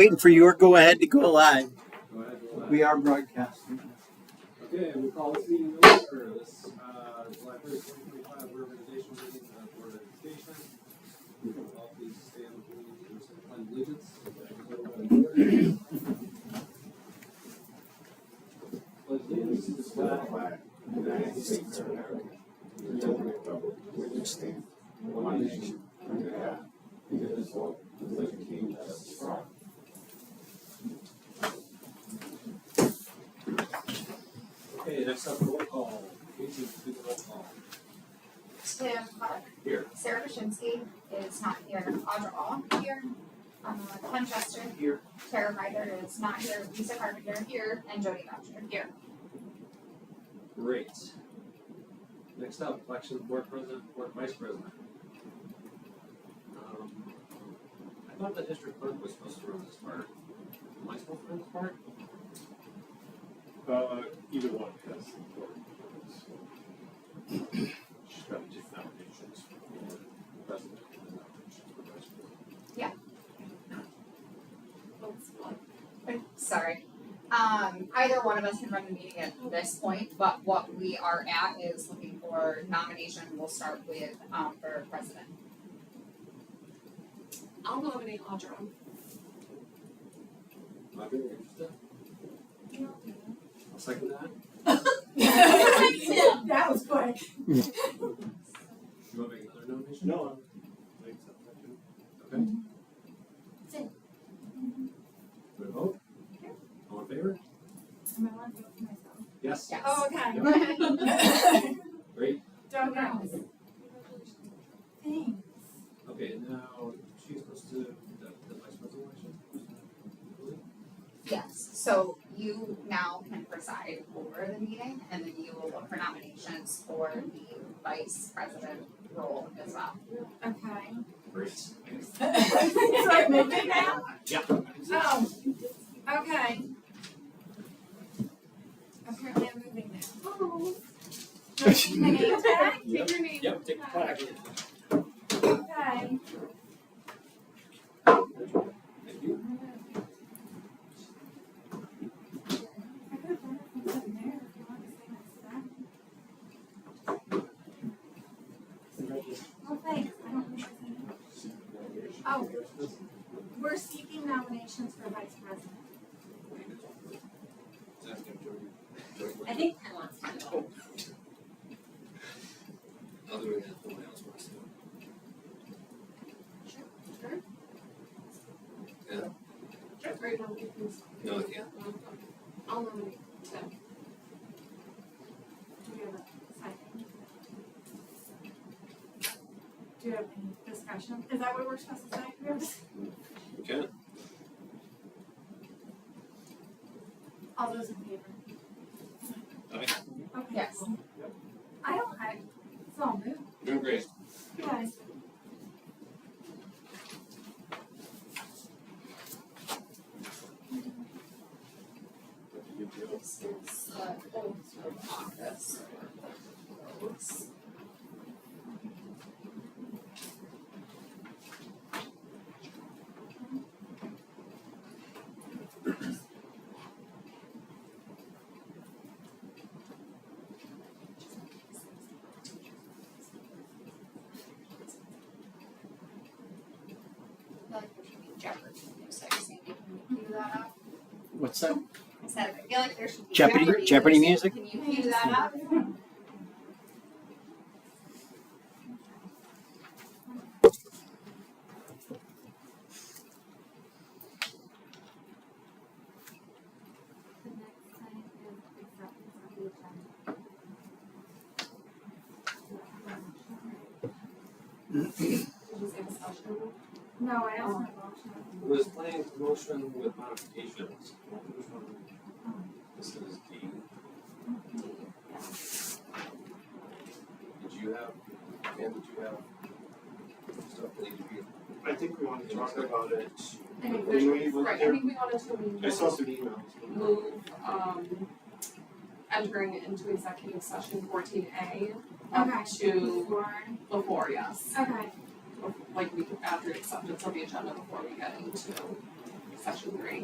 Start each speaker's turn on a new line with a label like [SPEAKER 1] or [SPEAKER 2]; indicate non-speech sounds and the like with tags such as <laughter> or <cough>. [SPEAKER 1] Waiting for your go ahead to go live. We are broadcasting.
[SPEAKER 2] Okay, we call E this meeting to order. This, uh, July first, twenty twenty-five, reorganization meeting for the Board of Education. We will all please stand with me for the pledge of allegiance. Pledge allegiance to the flag of the United States of America, and to the republic for which it stands, one nation, under God, indivisible, with liberty and justice for all. Okay, next up, roll call. Casey, do the roll call.
[SPEAKER 3] Tim Clark.
[SPEAKER 2] Here.
[SPEAKER 3] Sarah Bashinsky is not here. Audra All here. Uh, Ken Chester.
[SPEAKER 2] Here.
[SPEAKER 3] Tara Ryder is not here. Lisa Carpenter here. And Jody Boucher here.
[SPEAKER 2] Great. Next up, election of board president, board vice president. Um, I thought the district clerk was supposed to run this part. Am I supposed to run this part?
[SPEAKER 4] Uh, either one has important points. She's got to take nominations for president and nominations for vice president.
[SPEAKER 3] I'm Sorry. Um, either one of us can run the meeting at this point, but what we are at is looking for nomination. We'll start with, um, for president.
[SPEAKER 5] I'll nominate Audra.
[SPEAKER 2] Am I being interested? I'll second that.
[SPEAKER 5] That was quick.
[SPEAKER 2] You want to make another nomination?
[SPEAKER 4] No, I think so. I do.
[SPEAKER 2] Okay.
[SPEAKER 5] That's it.
[SPEAKER 2] Do we vote?
[SPEAKER 5] Sure.
[SPEAKER 2] All in favor?
[SPEAKER 5] Am I allowed to vote for
[SPEAKER 2] Yes?
[SPEAKER 3] Yes.
[SPEAKER 5] Oh,
[SPEAKER 3] <laughs>
[SPEAKER 5] myself?
[SPEAKER 3] Okay.
[SPEAKER 5] Okay.
[SPEAKER 2] Great.
[SPEAKER 5] <laughs> Don't <laughs> know. Thanks.
[SPEAKER 2] Okay, now, she's supposed to, the, the vice president election?
[SPEAKER 3] Yes, so you now can preside over the meeting and then you will look for nominations for the vice president role as well.
[SPEAKER 5] Okay.
[SPEAKER 2] Great.
[SPEAKER 5] So I moved it now?
[SPEAKER 2] Yeah.
[SPEAKER 5] Oh, okay. Apparently I'm moving <laughs> now. Take my name tag? Take your name.
[SPEAKER 2] Yep, take the
[SPEAKER 5] tag.
[SPEAKER 2] flag.
[SPEAKER 5] Okay.
[SPEAKER 2] Thank you.
[SPEAKER 5] I could have done it from up there if you wanted to stay next to that. Well, thanks. I don't think there's any. Oh, we're seeking nominations for vice president.
[SPEAKER 6] I think Ken wants to go.
[SPEAKER 2] Other than that, nobody else wants to.
[SPEAKER 5] Sure.
[SPEAKER 2] Yeah.
[SPEAKER 5] Or you want me to-
[SPEAKER 2] No, I can't.
[SPEAKER 5] I'll nominate Tim. Do you have a second? Do you have any discussion? Is that what we're supposed to say? Do we have dis-
[SPEAKER 2] You can.
[SPEAKER 5] All those in favor?
[SPEAKER 2] Aye.
[SPEAKER 5] Okay.
[SPEAKER 3] Yes.
[SPEAKER 5] cool. I don't, I, it's all moot.
[SPEAKER 2] Doing great.
[SPEAKER 5] Yes.
[SPEAKER 4] Have to give you
[SPEAKER 3] This is the oath of office. Oaths. I feel like there should be Jeopardy music, Sandy, can you cue that up?
[SPEAKER 1] What's that?
[SPEAKER 3] I said, I feel like there should be
[SPEAKER 1] Jeopardy-
[SPEAKER 3] Jeopardy,
[SPEAKER 1] Jeopardy
[SPEAKER 3] Can you cue that up?
[SPEAKER 5] The next thing is acceptance of the agenda. No, I don't have option.
[SPEAKER 2] Was planning promotion with modifications. Which one? This is D. Did you have, Pam, did you have stuff that needed to be?
[SPEAKER 4] I think we want to talk about it.
[SPEAKER 7] I think
[SPEAKER 4] When
[SPEAKER 7] we,
[SPEAKER 4] we went
[SPEAKER 7] right, I
[SPEAKER 4] there,
[SPEAKER 7] think we wanted to move,
[SPEAKER 4] I saw some emails.
[SPEAKER 7] move, um, entering into executive session fourteen A
[SPEAKER 5] Okay.
[SPEAKER 7] up to
[SPEAKER 5] Before.
[SPEAKER 7] before, yes.
[SPEAKER 5] Okay,
[SPEAKER 7] Like we, after acceptance of the agenda before we get into session three.